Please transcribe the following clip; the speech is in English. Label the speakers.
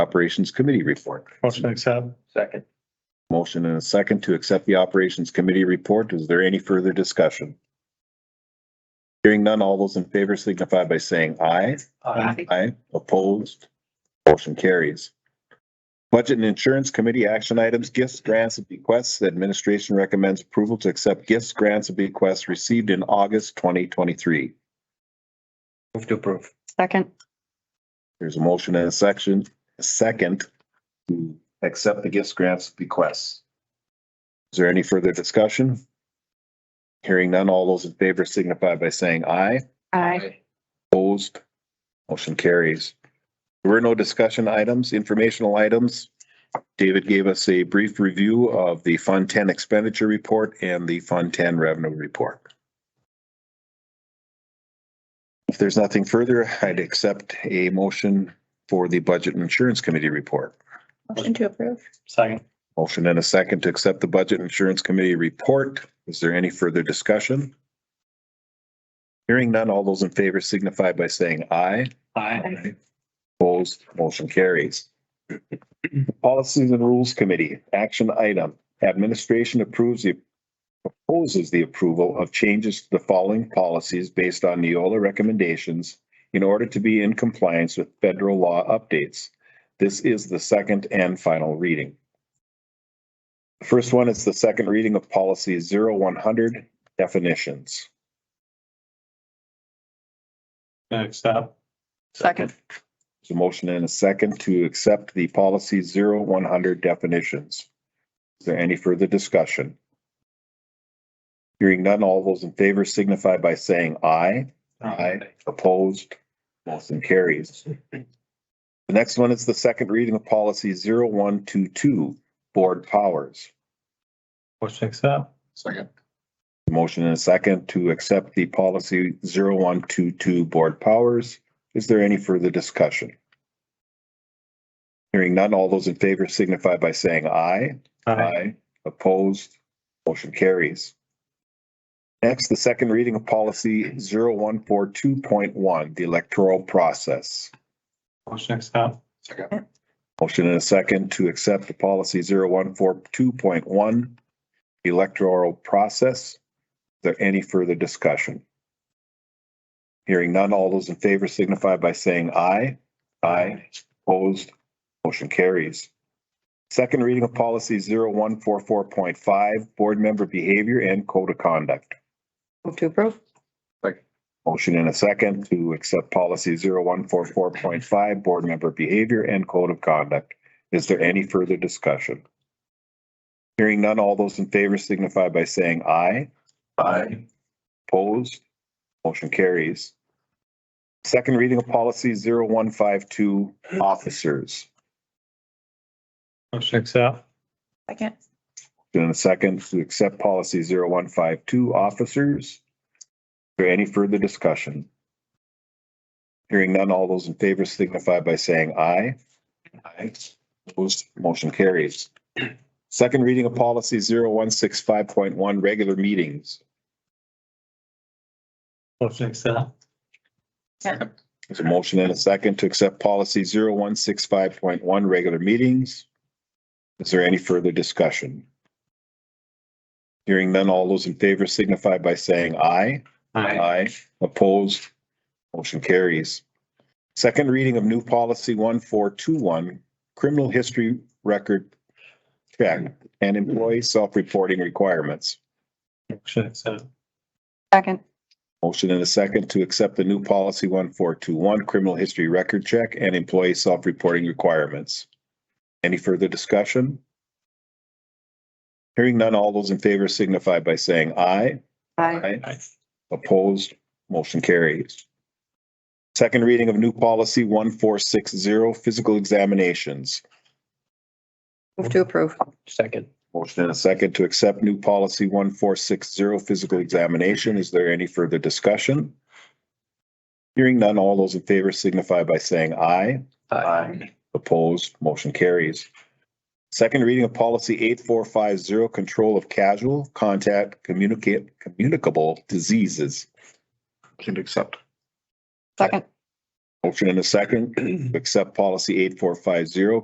Speaker 1: Operations Committee report.
Speaker 2: Motion to accept.
Speaker 3: Second.
Speaker 1: Motion and a second to accept the Operations Committee report. Is there any further discussion? Hearing none, all those in favor signify by saying aye.
Speaker 2: Aye.
Speaker 1: Aye. Opposed? Motion carries. Budget and Insurance Committee action items, gifts, grants, and bequests. The Administration recommends approval to accept gifts, grants, and bequests received in August twenty twenty-three.
Speaker 3: Move to approve.
Speaker 4: Second.
Speaker 1: There's a motion and a section, a second to accept the gifts, grants, bequests. Is there any further discussion? Hearing none, all those in favor signify by saying aye.
Speaker 4: Aye.
Speaker 1: Opposed? Motion carries. There were no discussion items, informational items. David gave us a brief review of the Fund Ten expenditure report and the Fund Ten revenue report. If there's nothing further, I'd accept a motion for the Budget and Insurance Committee report.
Speaker 4: Motion to approve.
Speaker 2: Second.
Speaker 1: Motion and a second to accept the Budget and Insurance Committee report. Is there any further discussion? Hearing none, all those in favor signify by saying aye.
Speaker 2: Aye.
Speaker 1: Opposed, motion carries. Policies and Rules Committee, action item, administration approves the proposes the approval of changes to the following policies based on Neola recommendations in order to be in compliance with federal law updates. This is the second and final reading. The First one is the second reading of policy 0100 definitions.
Speaker 2: Gonna Accept.
Speaker 4: Second.
Speaker 1: There's a motion and a second to accept the policy zero one hundred definitions. Is there any further discussion? Hearing none, all those in favor signify by saying aye. Aye. Opposed, motion carries. The next one is the second reading of policy zero one two two, board powers.
Speaker 2: Motion to accept.
Speaker 3: Second.
Speaker 1: Motion and a second to accept the policy zero one two two board powers. Is there any further discussion? Hearing none, all those in favor signify by saying aye. Opposed, motion carries. Next, the second reading of policy zero one four two point one, the electoral process.
Speaker 2: Motion to accept.
Speaker 3: Second.
Speaker 1: Motion and a second to accept the policy zero one four two point one, electoral process. Is there any further discussion? Hearing none, all those in favor signify by saying aye. Aye. Opposed, motion carries. Second reading of policy zero one four four point five, board member behavior and code of conduct.
Speaker 4: Move to approve.
Speaker 1: Motion and a second to accept policy zero one four four point five, board member behavior and code of conduct. Is there any further discussion? Hearing none, all those in favor signify by saying aye.
Speaker 3: Aye.
Speaker 1: Opposed? Motion carries. Second reading of policy zero one five two, officers.
Speaker 2: Motion to accept.
Speaker 4: Second.
Speaker 1: In a second to accept policy zero one five two officers. Is there any further discussion? Hearing none, all those in favor signify by saying aye. Aye. Opposed, motion carries. Second reading of policy zero one six five point one, regular meetings.
Speaker 2: Motion to accept.
Speaker 3: Second.
Speaker 1: There's a motion and a second to accept policy zero one six five point one, regular meetings. Is there any further discussion? Hearing none, all those in favor signify by saying aye. Aye. Opposed? Motion carries. Second reading of new policy one four two one, criminal history record check and employee self-reporting requirements.
Speaker 2: Motion to accept.
Speaker 4: Second.
Speaker 1: Motion and a second to accept the new policy one four two one, criminal history record check and employee self-reporting requirements. Any further discussion? Hearing none, all those in favor signify by saying aye.
Speaker 4: Aye.
Speaker 2: Aye.
Speaker 1: Opposed, motion carries. Second reading of new policy one four six zero, physical examinations.
Speaker 4: Move to approve.
Speaker 3: Second.
Speaker 1: Motion and a second to accept new policy one four six zero, physical examination. Is there any further discussion? Hearing none, all those in favor signify by saying aye. Aye. Opposed, motion carries. Second reading of policy eight four five zero, control of casual contact communicate communicable diseases. Motion to accept.
Speaker 4: Second.
Speaker 1: Motion and a second to accept policy eight four five zero,